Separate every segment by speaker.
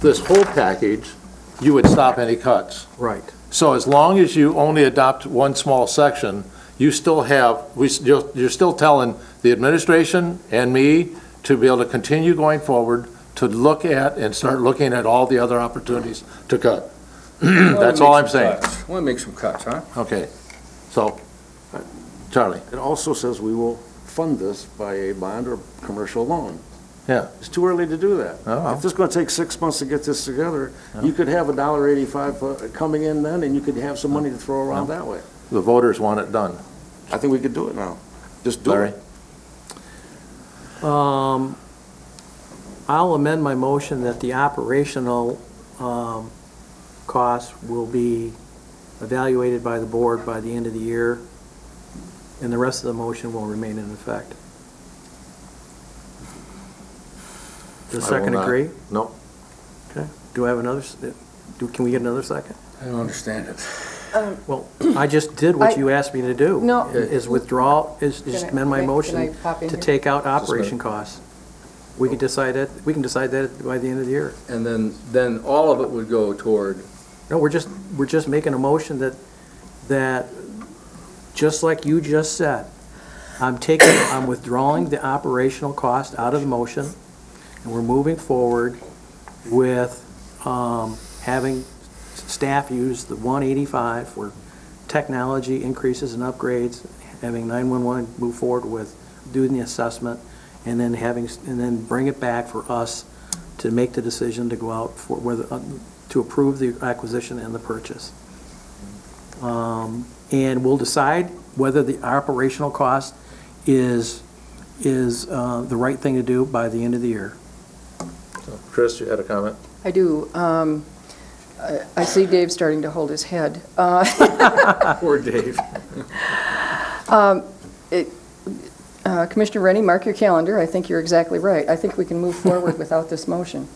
Speaker 1: this whole package, you would stop any cuts.
Speaker 2: Right.
Speaker 1: So as long as you only adopt one small section, you still have, we s- you're you're still telling the administration and me to be able to continue going forward, to look at and start looking at all the other opportunities to cut. That's all I'm saying.
Speaker 3: Want to make some cuts, huh?
Speaker 1: Okay. So, Charlie,
Speaker 2: It also says we will fund this by a bond or commercial loan.
Speaker 1: Yeah.
Speaker 2: It's too early to do that.
Speaker 1: Oh.
Speaker 2: If this is going to take six months to get this together, you could have a dollar eighty-five uh, coming in then, and you could have some money to throw around that way.
Speaker 1: the voters want it done.
Speaker 2: I think we could do it now. Just do
Speaker 1: Larry?
Speaker 2: it.
Speaker 4: Um, I'll amend my motion that the operational um, costs will be evaluated by the board by the end of the year, and the rest of the motion will remain in effect. Does
Speaker 1: I will
Speaker 4: second
Speaker 1: not.
Speaker 4: agree?
Speaker 1: No.
Speaker 4: Okay. Do I have another, s- do, can we get another second?
Speaker 3: I don't understand it.
Speaker 4: Well, I just did what you asked me to do.
Speaker 5: No.
Speaker 4: Is withdraw, is is
Speaker 5: Can I-
Speaker 4: amend my
Speaker 5: can I- can I
Speaker 4: motion
Speaker 5: pop in
Speaker 4: to
Speaker 5: here?
Speaker 4: take out operation costs. We could decide that, we can decide that by the end of the year.
Speaker 3: And then, then all of it would go toward,
Speaker 4: No, we're just, we're just making a motion that, that, just like you just said, I'm taking, I'm withdrawing the operational cost out of the motion, and we're moving forward with um, having staff use the 185 for technology increases and upgrades, having 911 move forward with doing the assessment, and then having, and then bring it back for us to make the decision to go out for, whether, uh, to approve the acquisition and the purchase. Um, And we'll decide whether the operational cost is, is uh, the right thing to do by the end of the year.
Speaker 1: Chris, you had a comment?
Speaker 5: I do. Um, I I see Dave starting to hold his head. Uh, Um,
Speaker 3: poor Dave.
Speaker 5: uh, Commissioner Rennie, mark your calendar. I think you're exactly right. I think we can move forward without this motion.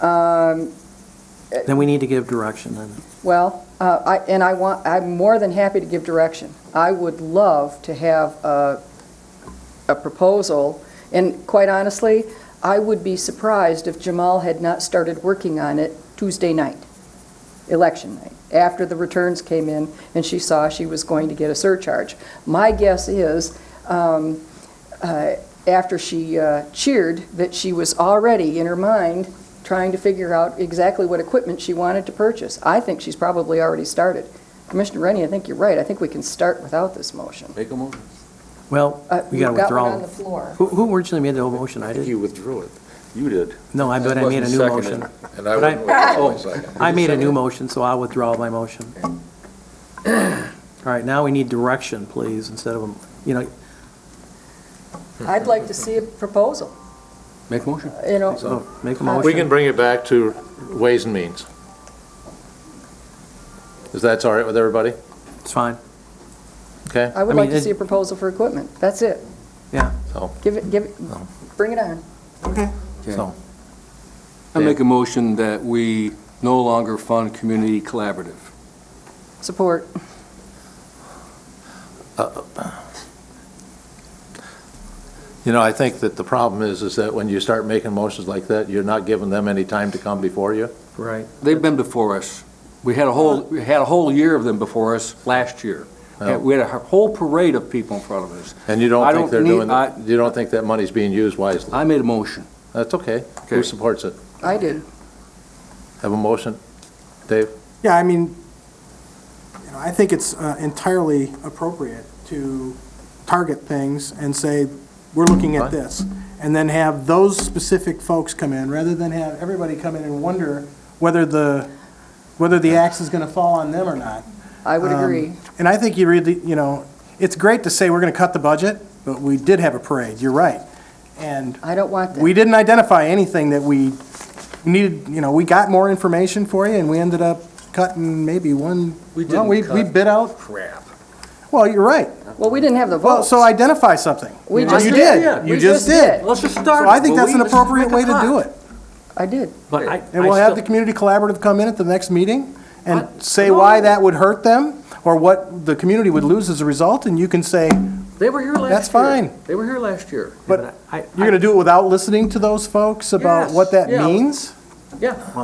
Speaker 5: Um,
Speaker 4: Then we need to give direction then.
Speaker 5: Well, uh, I- and I want, I'm more than happy to give direction. I would love to have a a proposal, and quite honestly, I would be surprised if Jamal had not started working on it Tuesday night, election night, after the returns came in and she saw she was going to get a surcharge. My guess is, um, uh, after she uh, cheered, that she was already in her mind trying to figure out exactly what equipment she wanted to purchase. I think she's probably already started. Commissioner Rennie, I think you're right. I think we can start without this motion.
Speaker 2: Make a motion.
Speaker 4: Well,
Speaker 5: Uh,
Speaker 4: we got
Speaker 5: you've
Speaker 4: to
Speaker 5: got one on
Speaker 4: withdraw.
Speaker 5: the floor.
Speaker 4: Who- Who originally made the whole motion? I
Speaker 2: I think
Speaker 4: did.
Speaker 2: you withdrew it. You did.
Speaker 4: No, I bet I made a new
Speaker 3: Wasn't
Speaker 4: motion.
Speaker 3: seconded, And I
Speaker 4: But I- Oh,
Speaker 3: wouldn't withdraw a second.
Speaker 4: I made a new motion, so I'll withdraw my motion. All right, now we need direction, please, instead of, a- you know,
Speaker 5: I'd like to see a proposal,
Speaker 3: Make motion.
Speaker 5: you know.
Speaker 4: so oh, make a
Speaker 5: We
Speaker 1: We
Speaker 4: motion.
Speaker 1: can bring it back to Ways and Means. Is that all right with everybody?
Speaker 4: It's fine.
Speaker 1: Okay?
Speaker 5: I would
Speaker 4: I
Speaker 5: like
Speaker 4: mean,
Speaker 5: to
Speaker 4: it-
Speaker 5: see a proposal for equipment. That's it.
Speaker 4: Yeah.
Speaker 1: So-
Speaker 5: Give it, give, it. bring it on.
Speaker 1: So,
Speaker 3: I make a motion that we no longer fund community collaborative.
Speaker 5: Support.
Speaker 1: you know, I think that the problem is, is that when you start making motions like that, you're not giving them any time to come before you.
Speaker 4: Right.
Speaker 3: They've been before us. We had a whole, we had a whole year of them before us last year.
Speaker 6: Oh.
Speaker 3: We had a whole parade of people in front of us.
Speaker 1: And you
Speaker 3: I
Speaker 1: don't think
Speaker 3: don't
Speaker 1: they're
Speaker 3: need-
Speaker 1: doing,
Speaker 3: I-
Speaker 1: that- you don't think that money's being used wisely.
Speaker 3: I made a motion.
Speaker 1: That's okay. Who
Speaker 3: Okay.
Speaker 1: supports it?
Speaker 5: I did.
Speaker 1: Have a motion? Dave?
Speaker 6: Yeah, I mean, you know, I think it's uh, entirely appropriate to target things and say, we're looking
Speaker 1: Fine.
Speaker 6: at this. And then have those specific folks come in, rather than have everybody come in and wonder whether the, whether the axe is going to fall on them or not.
Speaker 5: I would
Speaker 6: Um,
Speaker 5: agree.
Speaker 6: And I think you really, you know, it's great to say we're going to cut the budget, but we did have a parade, you're right. And
Speaker 5: I don't want that.
Speaker 6: we didn't identify anything that we needed, you know, we got more information for you, and we ended up cutting maybe one,
Speaker 3: We
Speaker 6: well, we,
Speaker 3: didn't
Speaker 6: we
Speaker 3: cut.
Speaker 6: bid out,
Speaker 3: Crap.
Speaker 6: well, you're right.
Speaker 5: Well, we didn't have the
Speaker 6: Well,
Speaker 5: vote.
Speaker 6: so identify something.
Speaker 5: We
Speaker 6: You
Speaker 5: just
Speaker 6: did, you
Speaker 5: We
Speaker 6: just did.
Speaker 4: Let's just start.
Speaker 6: So I think that's an appropriate way to do it.
Speaker 5: I did.
Speaker 4: But I,
Speaker 6: And we'll
Speaker 4: I
Speaker 6: have the
Speaker 4: still,
Speaker 6: community collaborative come in at the next meeting
Speaker 4: I-
Speaker 6: and say why that would hurt them, or what the community would lose as a result, and you can say,
Speaker 3: They were here last year.
Speaker 6: That's fine.
Speaker 3: They were here last year.
Speaker 6: but
Speaker 4: I,
Speaker 6: you're gonna do it without listening to those folks about
Speaker 3: Yes,
Speaker 6: what that
Speaker 3: yeah.
Speaker 6: means?
Speaker 3: Yeah.